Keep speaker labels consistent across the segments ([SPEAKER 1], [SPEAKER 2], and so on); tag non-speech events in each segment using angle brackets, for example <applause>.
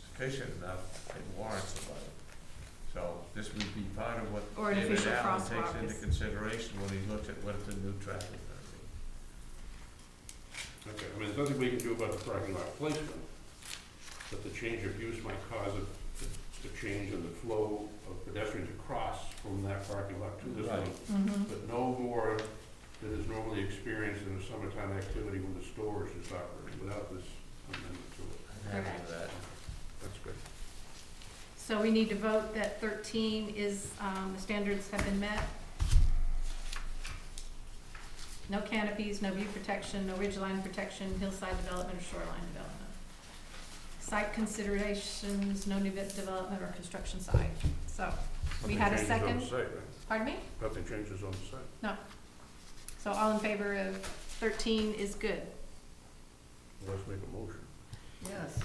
[SPEAKER 1] sufficient enough, it warrants a vote. So this would be part of what
[SPEAKER 2] Or an
[SPEAKER 1] David
[SPEAKER 2] official
[SPEAKER 1] Allen takes
[SPEAKER 2] crosswalk
[SPEAKER 1] into
[SPEAKER 2] is-
[SPEAKER 1] consideration when he looks at what the new traffic is
[SPEAKER 3] Okay, I mean, there's nothing we can do about the parking lot placement, but the change of use might cause a, a change in the flow of pedestrians across from that parking lot to this one.
[SPEAKER 1] Right.
[SPEAKER 2] Mm-hmm.
[SPEAKER 3] But no more than is normally experienced in a summertime activity when the store is just operating without this amendment to it.
[SPEAKER 1] I'm happy with that.
[SPEAKER 3] That's good.
[SPEAKER 2] So we need to vote that thirteen is, um, the standards have been met. No canopies, no view protection, no ridge line protection, hillside development or shoreline development. Site considerations, no new de- development or construction site, so, We had a
[SPEAKER 3] Nothing changes
[SPEAKER 2] second?
[SPEAKER 3] on the site, right?
[SPEAKER 2] pardon me?
[SPEAKER 3] Nothing changes on the site.
[SPEAKER 2] So all in favor of thirteen is good.
[SPEAKER 3] Let's make a motion.
[SPEAKER 4] Yes.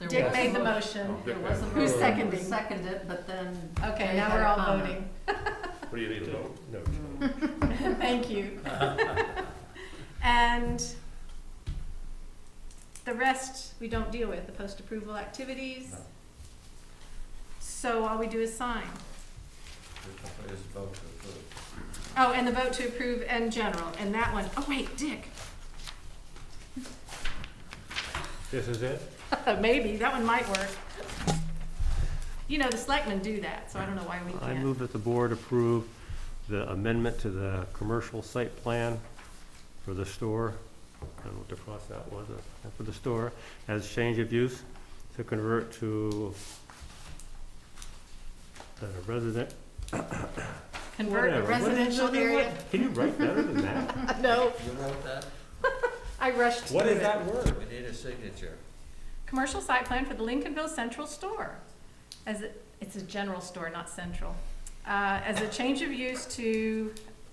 [SPEAKER 4] There
[SPEAKER 2] Dick
[SPEAKER 4] was a
[SPEAKER 2] made the
[SPEAKER 4] mo-
[SPEAKER 2] motion.
[SPEAKER 3] Oh,
[SPEAKER 4] There was a
[SPEAKER 3] Who
[SPEAKER 4] motion. Oh.
[SPEAKER 2] seconded?
[SPEAKER 4] Who Seconded, but
[SPEAKER 5] <laughs>
[SPEAKER 4] then.
[SPEAKER 2] Okay,
[SPEAKER 4] they
[SPEAKER 2] now
[SPEAKER 4] had
[SPEAKER 2] we're
[SPEAKER 4] a
[SPEAKER 2] all
[SPEAKER 4] comment.
[SPEAKER 2] voting.
[SPEAKER 3] What do you need to vote? No.
[SPEAKER 4] Mm.
[SPEAKER 2] <laughs> Thank you.
[SPEAKER 6] <laughs>
[SPEAKER 2] And the rest, we don't deal with, the post-approval activities.
[SPEAKER 1] No.
[SPEAKER 2] So all we do is sign.
[SPEAKER 1] This is vote to approve.
[SPEAKER 2] Oh, and the vote to approve and general, and that one, oh wait,
[SPEAKER 6] <laughs>
[SPEAKER 2] Dick,
[SPEAKER 6] This is it?
[SPEAKER 2] maybe, that one might work. You know, the selectmen do that, so I don't know why we
[SPEAKER 6] I
[SPEAKER 2] can't.
[SPEAKER 6] move that the board approve the amendment to the commercial site plan for the store. I don't know what the cross that was, uh, for the store, as change of use to convert to uh, resident,
[SPEAKER 2] Convert a
[SPEAKER 6] whatever. What is-
[SPEAKER 2] residential
[SPEAKER 6] what is- what-
[SPEAKER 2] area,
[SPEAKER 6] Can you write better than
[SPEAKER 5] <laughs>
[SPEAKER 6] that?
[SPEAKER 2] <laughs> no,
[SPEAKER 1] You wrote that?
[SPEAKER 2] I rushed through it.
[SPEAKER 6] What is that word?
[SPEAKER 1] We need a signature.
[SPEAKER 2] Commercial site plan for the Lincolnville Central Store. As, it- it's a general store, not central. Uh, As a change of use to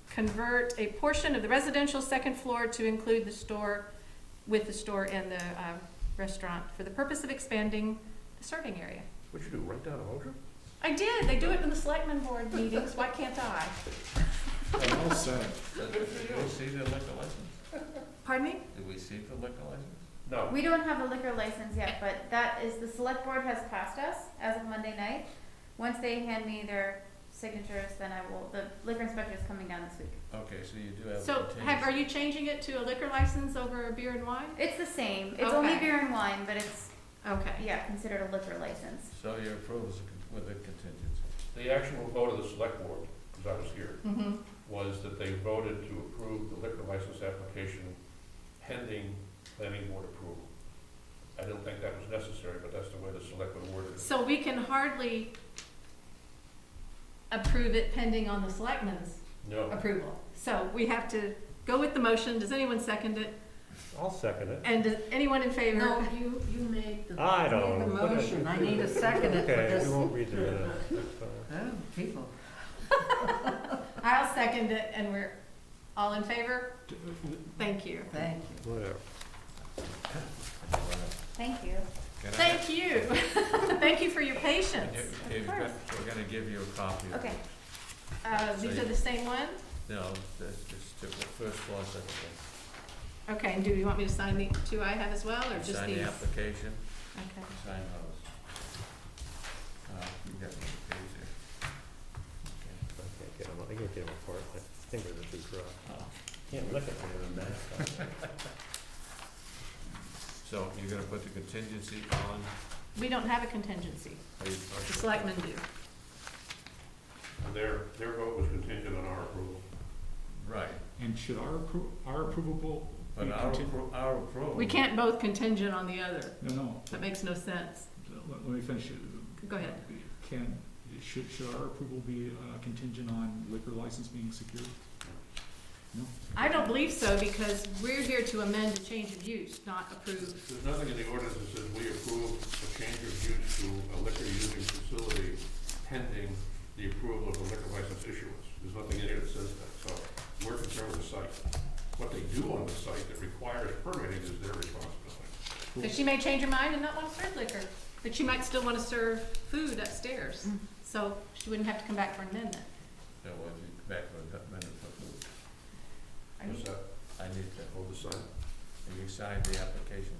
[SPEAKER 2] convert a portion of the residential second floor to include the store, with the store and the uh, restaurant, for the purpose of expanding the serving area.
[SPEAKER 3] What'd you do, write down a motion?
[SPEAKER 2] I did, they do it in the selectmen board meetings, why can't I?
[SPEAKER 6] Oh,
[SPEAKER 7] I'm all set.
[SPEAKER 1] Did we see the liquor license?
[SPEAKER 2] Pardon me?
[SPEAKER 1] Did we see the liquor license?
[SPEAKER 3] No.
[SPEAKER 5] We don't have a liquor license yet, but that is, the select board has passed us as of Monday night. Once they hand me their signatures, then I will, the liquor inspector is coming down this week.
[SPEAKER 1] Okay, so you do have a
[SPEAKER 2] So,
[SPEAKER 1] contingency.
[SPEAKER 2] have, are you changing it to a liquor license over a beer and wine?
[SPEAKER 5] It's the same, it's only
[SPEAKER 2] Okay.
[SPEAKER 5] beer and wine, but it's,
[SPEAKER 2] Okay.
[SPEAKER 5] yeah, considered a liquor license.
[SPEAKER 1] So your approval is con- with a contingency.
[SPEAKER 3] The actual vote of the select board, because I was here,
[SPEAKER 2] Mm-hmm.
[SPEAKER 3] was that they voted to approve the liquor license application pending planning board approval. I didn't think that was necessary, but that's the way the selectmen worded it.
[SPEAKER 2] So we can hardly approve it pending on the selectmen's
[SPEAKER 3] No,
[SPEAKER 2] approval. So we have to go with the motion. Does anyone second it?
[SPEAKER 6] I'll second it.
[SPEAKER 2] And does anyone in favor?
[SPEAKER 4] No, you, you made the.
[SPEAKER 6] I don't
[SPEAKER 4] made the
[SPEAKER 6] know. What is-
[SPEAKER 4] motion, I need a second it for
[SPEAKER 6] Okay,
[SPEAKER 4] this.
[SPEAKER 6] we
[SPEAKER 4] Oh,
[SPEAKER 6] won't read the uh,
[SPEAKER 4] <laughs>
[SPEAKER 6] minutes. That's fine.
[SPEAKER 4] people.
[SPEAKER 2] I'll second it and we're all in favor? Thank you.
[SPEAKER 4] Thank you.
[SPEAKER 6] Whatever.
[SPEAKER 5] Thank you.
[SPEAKER 1] Can I-
[SPEAKER 2] Thank you. <laughs> Thank you for your
[SPEAKER 1] And
[SPEAKER 2] patience.
[SPEAKER 1] you- you've got- We're gonna give you a copy. of
[SPEAKER 5] Okay,
[SPEAKER 2] Uh, these are the same ones?
[SPEAKER 1] No, that's just the first floor, second floor.
[SPEAKER 2] Okay, and do you want me to sign the two I have as well or Oh, just
[SPEAKER 1] Sign
[SPEAKER 2] these?
[SPEAKER 1] the application,
[SPEAKER 2] Okay.
[SPEAKER 1] and sign those. Uh, you got the page
[SPEAKER 6] I
[SPEAKER 1] there.
[SPEAKER 6] can't get them, I can't get them apart. My fingers are too dry.
[SPEAKER 1] Okay.
[SPEAKER 6] Can't look at them in the minutes.
[SPEAKER 1] So you're gonna put the contingency on?
[SPEAKER 2] We don't have a contingency.
[SPEAKER 1] are you- are
[SPEAKER 2] The
[SPEAKER 1] you-
[SPEAKER 2] selectmen do.
[SPEAKER 3] and their, their vote was contingent on our approval.
[SPEAKER 1] Right,
[SPEAKER 7] And should our appro, our approvable,
[SPEAKER 1] but
[SPEAKER 7] We
[SPEAKER 1] our,
[SPEAKER 7] contin-
[SPEAKER 1] appro- our approval.
[SPEAKER 2] We can't both contingent on the other.
[SPEAKER 7] no, no,
[SPEAKER 2] That makes no sense.
[SPEAKER 7] let, let me finish. it.
[SPEAKER 2] Go ahead.
[SPEAKER 7] Can, should, should our approval be uh, contingent on liquor license being secured? No?
[SPEAKER 2] I don't believe so, because we're here to amend a change of use, not approve.
[SPEAKER 3] There's nothing in the ordinance that says we approve a change of use to a liquor using facility pending the approval of the liquor license issuance. There's nothing in here that says that, so we're concerned with the site. What they do on the site that requires permitting is their responsibility.
[SPEAKER 2] Because she may change her mind and not want to serve liquor, but she might still want to serve food upstairs. So she wouldn't have to come back for an amendment.
[SPEAKER 1] So we'll be back with a minute for food.
[SPEAKER 2] Are you-
[SPEAKER 3] Is that
[SPEAKER 1] I need to,
[SPEAKER 3] all the sign?
[SPEAKER 1] and you signed the application